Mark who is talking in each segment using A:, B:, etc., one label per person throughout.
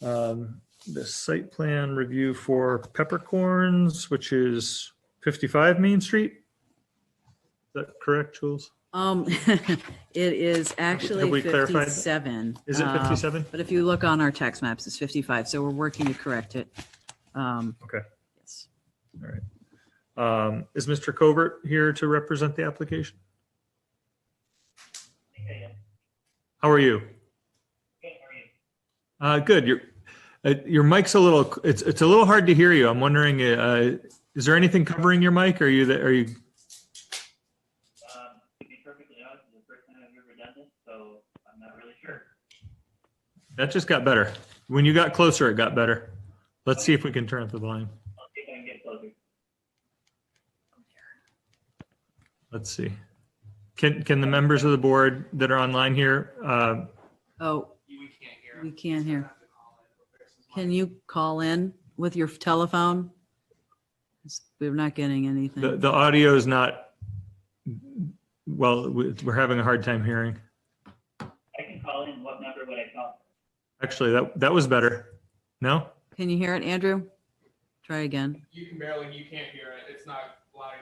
A: um, the site plan review for Peppercorns, which is 55 Main Street. Is that correct, Jules?
B: Um, it is actually
A: we clarified that?
B: fifty-seven.
A: Is it
B: um,
A: 57?
B: But if you look on our tax maps, it's fifty-five, so we're working to correct it. Um,
A: Okay.
B: yes.
A: Um, Is Mr. Covert here to represent the application? How are you? Uh, Good. Your, uh, your mic's a little, it's, it's a little hard to hear you. I'm wondering, uh, is there anything covering your mic? Are you, the- are you,
C: Um, to be perfectly honest, it's the first time I've ever done this, so I'm not really sure.
A: that just got better. When you got closer, it got better. Let's see if we can turn up the volume.
C: I'll see if I can get closer.
A: Let's see. Can, can the members of the board that are online here, uh,
B: Oh,
D: We can't hear.
B: we can't hear. Can you call in with your telephone? We're not getting
A: the,
B: anything.
A: the audio is not, well, we- we're having a hard time hearing.
C: I can call in, what number would I call?
A: Actually, that, that was better. No?
B: Can you hear it, Andrew? Try again.
D: You can barely, you can't hear it. It's not loud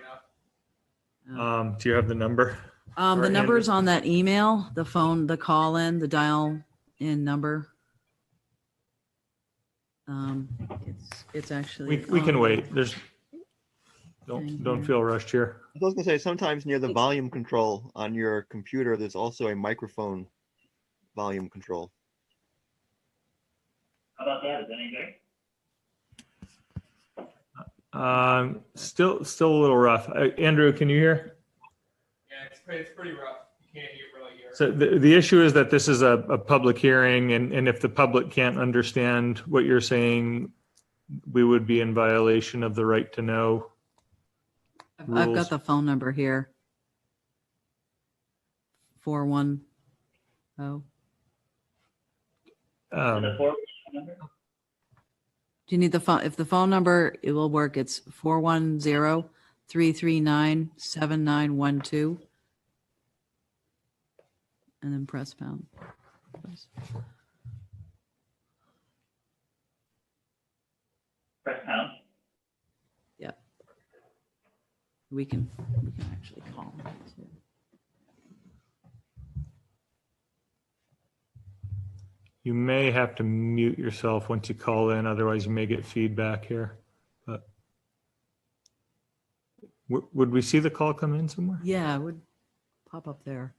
D: enough.
A: Um, do you have the number?
B: Um,
A: Or
B: the
A: Andrew.
B: number's on that email, the phone, the call in, the dial in number. Um, it's, it's
A: We,
B: actually. um,
A: we can
B: on-
A: wait. There's, don't, don't feel rushed here.
E: I was gonna say, sometimes near the volume control on your computer, there's also a microphone volume control.
C: How about that, is that any better?
A: Um, still, still a little rough. Uh, Andrew, can you hear?
D: Yeah, it's, pre- it's pretty rough. You can't hear, really hear.
A: So the, the issue is that this is a, a public hearing and, and if the public can't understand what you're saying, we would be in violation of the right to know.
B: I've- I've
A: rules.
B: got the phone number here. Four one oh.
C: So The
A: Um,
C: four number?
B: Do you need the phone? If the phone number, it will work. It's four one zero three three nine seven nine one two. And then press pound.
C: Press pound.
B: We can, we can actually call. them, too.
A: you may have to mute yourself once you call in, otherwise you may get feedback here, but. Would, would we see the call come in somewhere?
B: Yeah, it would pop up there.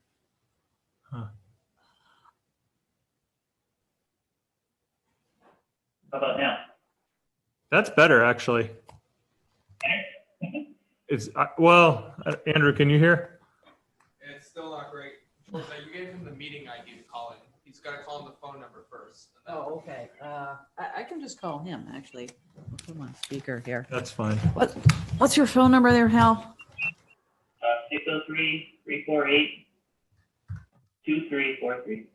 C: How about now?
A: That's better, actually. It's, I- well, uh, Andrew, can you hear?
D: It's still not great. Well, so you gave him the meeting ID to call in. He's got to call in the phone number first.
B: Oh, okay. Uh, I, I can just call him, actually. I'll Put him on speaker here.
A: That's fine.
B: What, what's your phone number there, Hal?
C: Uh, six oh three, three four eight, two three four three.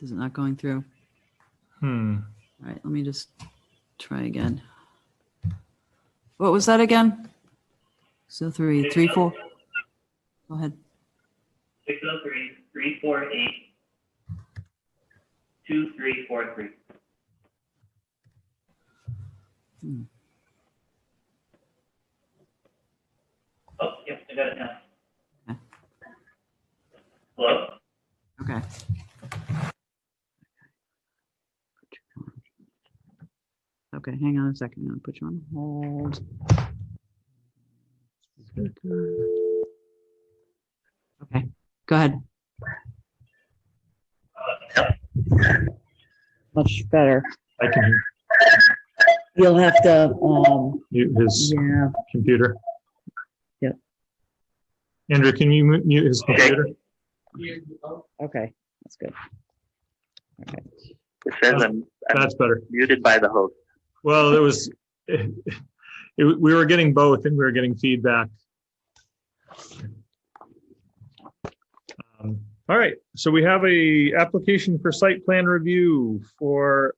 B: Is it not going through?
A: Hmm.
B: All right, let me just try again. What was that again? So three, three, four. Go ahead.
C: Six oh three, three four eight, two three four three. Oh, yep, I got it now.
B: Okay.
C: Hello?
B: Okay. Okay, hang on a second. I'll put you on hold. Okay, go ahead. Much better.
A: I can hear
B: You'll have to, um,
A: mute his
B: yeah,
A: computer.
B: Yep.
A: Andrew, can you mu- mute his
C: Okay.
A: computer?
D: He- oh,
B: okay, that's good.
C: It says I'm
A: That's better.
C: muted by the host.
A: Well, it was, it, we were getting both and we were getting feedback. Um, All right, so we have a application for site plan review for